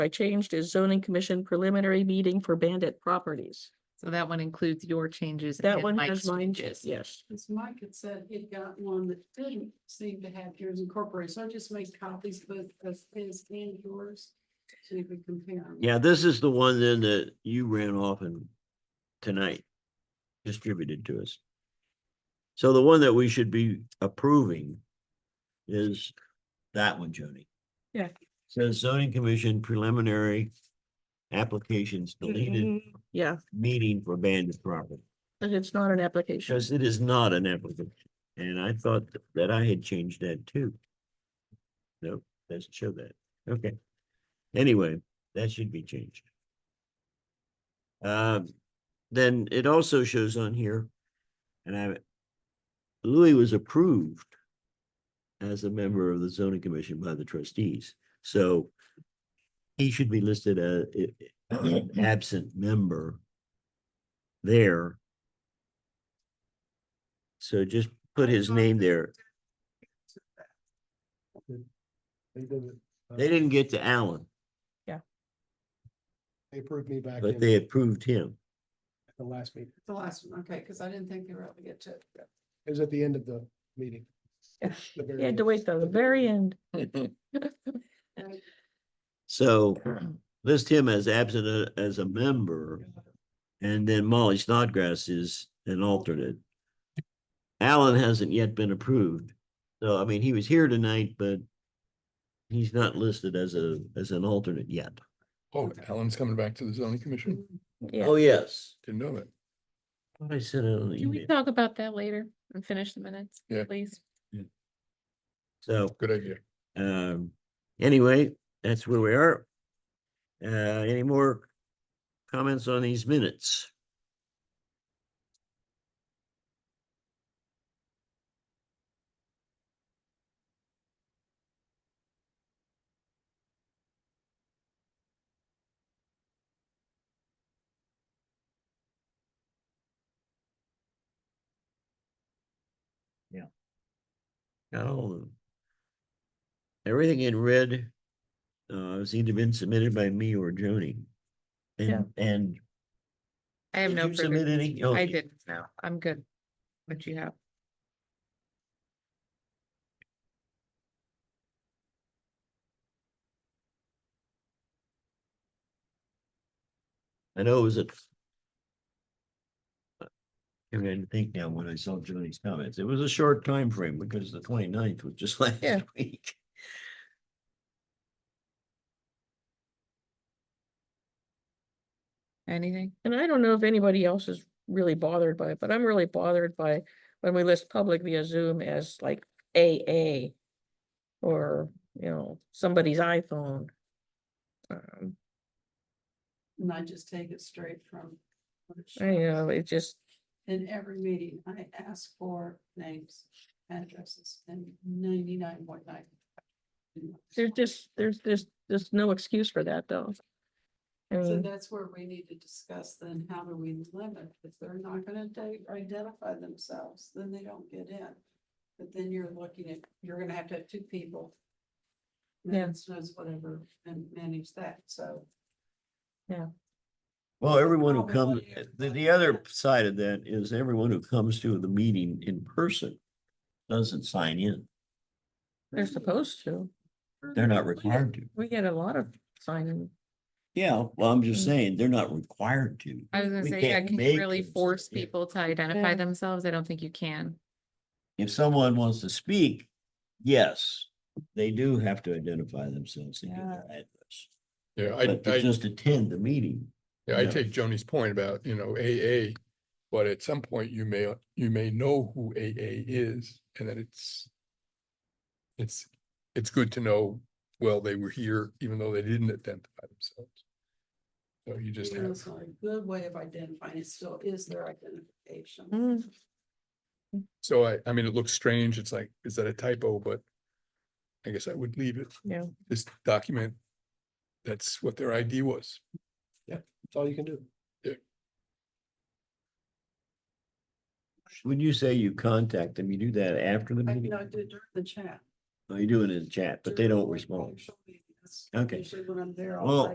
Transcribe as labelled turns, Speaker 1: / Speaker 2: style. Speaker 1: I changed is zoning commission preliminary meeting for bandit properties.
Speaker 2: So that one includes your changes.
Speaker 1: That
Speaker 2: and
Speaker 1: one
Speaker 2: Mike's
Speaker 1: has mine,
Speaker 2: changes.
Speaker 1: yes.
Speaker 3: Because Mike had said he'd got one that didn't seem to have yours incorporated, so I just made copies both of his and yours. So you could compare. 'em.
Speaker 4: Yeah, this is the one then that you ran off and tonight distributed to us. So the one that we should be approving is that one, Joni.
Speaker 1: Yeah.
Speaker 4: Says zoning commission preliminary applications deleted
Speaker 1: Mm, Yeah,
Speaker 4: meeting for bandit property.
Speaker 1: but it's not an application.
Speaker 4: Because it is not an application, and I thought that I had changed that too. Nope, doesn't show that, okay. Anyway, that should be changed. Um, then it also shows on here, and I, Louis was approved as a member of the zoning commission by the trustees, so he should be listed as an absent member there so just put his name there.
Speaker 5: They didn't. uh,
Speaker 4: They didn't get to Allen,
Speaker 5: They approved me back
Speaker 4: but
Speaker 5: in
Speaker 4: they
Speaker 5: at
Speaker 4: approved him.
Speaker 5: the last meeting.
Speaker 3: The last one, okay, because I didn't think they were able to get to it.
Speaker 5: It was at the end of the meeting.
Speaker 1: Yeah.
Speaker 5: The very
Speaker 1: You had
Speaker 5: end.
Speaker 1: to wait till the very end.
Speaker 3: And
Speaker 4: So list him as absent a- as a member. And then Molly Snodgrass is an alternate. Allen hasn't yet been approved. So I mean, he was here tonight, but he's not listed as a, as an alternate yet.
Speaker 6: Oh, Alan's coming back to the zoning commission.
Speaker 1: Yeah,
Speaker 4: Oh, yes.
Speaker 6: Didn't know that.
Speaker 4: I sent it on the
Speaker 2: Can we
Speaker 4: email.
Speaker 2: talk about that later and finish the minutes,
Speaker 6: Yeah.
Speaker 2: please?
Speaker 4: So.
Speaker 6: Good idea.
Speaker 4: Um, anyway, that's where we are. Uh, any more comments on these minutes? Yeah. Got all of them. Everything in red, uh, has either been submitted by me or Joni.
Speaker 1: Yeah.
Speaker 4: And, and
Speaker 2: I have
Speaker 4: Did
Speaker 2: no
Speaker 4: you submit
Speaker 2: further,
Speaker 4: any?
Speaker 2: I
Speaker 4: Okay.
Speaker 2: didn't, no, I'm good. What you have,
Speaker 4: I know it was a. I mean, I didn't think now when I saw Joni's comments, it was a short time frame because the 29th was just last
Speaker 1: Yeah.
Speaker 4: week.
Speaker 2: anything?
Speaker 1: and I don't know if anybody else is really bothered by it, but I'm really bothered by when we list public via Zoom as like AA or, you know, somebody's iPhone. Um,
Speaker 3: and I just take it straight from. what it
Speaker 1: I know,
Speaker 3: shows.
Speaker 1: it just,
Speaker 3: In every meeting, I ask for names, addresses, and ninety-nine point nine.
Speaker 1: there's just, there's, there's, there's no excuse for that though. I
Speaker 3: So
Speaker 1: mean,
Speaker 3: that's where we need to discuss then, how do we limit, if they're not gonna de- identify themselves, then they don't get in. But then you're looking at, you're gonna have to have two people.
Speaker 1: Yeah.
Speaker 3: Minutes, knows whatever, and manage that, so.
Speaker 4: Well, everyone who comes,
Speaker 3: Probably.
Speaker 4: the, the other side of that is everyone who comes to the meeting in person doesn't sign in.
Speaker 1: they're supposed to.
Speaker 4: They're not required to.
Speaker 1: We get a lot of signing.
Speaker 4: Yeah, well, I'm just
Speaker 1: Mm.
Speaker 4: saying, they're not required to.
Speaker 2: I was gonna
Speaker 4: We
Speaker 2: say, yeah,
Speaker 4: can't
Speaker 2: can
Speaker 4: make
Speaker 2: you really
Speaker 4: them
Speaker 2: force
Speaker 4: submit.
Speaker 2: people to identify
Speaker 1: Yeah.
Speaker 2: themselves? I don't think you can.
Speaker 4: If someone wants to speak, yes, they do have to identify themselves and give their address.
Speaker 6: Yeah, I,
Speaker 4: But
Speaker 6: I,
Speaker 4: to just attend the meeting.
Speaker 6: yeah, I
Speaker 4: yeah.
Speaker 6: take Joni's point about, you know, AA. But at some point you may, you may know who AA is and then it's. It's, it's good to know, well, they were here even though they didn't identify themselves. So you just
Speaker 3: even though
Speaker 6: have,
Speaker 3: It's not a good way of identifying, it still is their identification.
Speaker 1: Mm,
Speaker 6: so I, I mean, it looks strange. It's like, is that a typo? But. I guess I would leave it,
Speaker 1: Yeah,
Speaker 6: just document. That's what their ID was.
Speaker 5: That's all you can do.
Speaker 4: When you say you contact them, you do that after the
Speaker 3: I
Speaker 4: meeting?
Speaker 3: can I do it during the chat.
Speaker 4: Oh, You do it in chat, but they
Speaker 3: during
Speaker 4: don't
Speaker 3: the
Speaker 4: respond.
Speaker 3: social media. That's
Speaker 4: Okay.
Speaker 3: Usually when I'm there. I'll
Speaker 4: Well,
Speaker 3: say,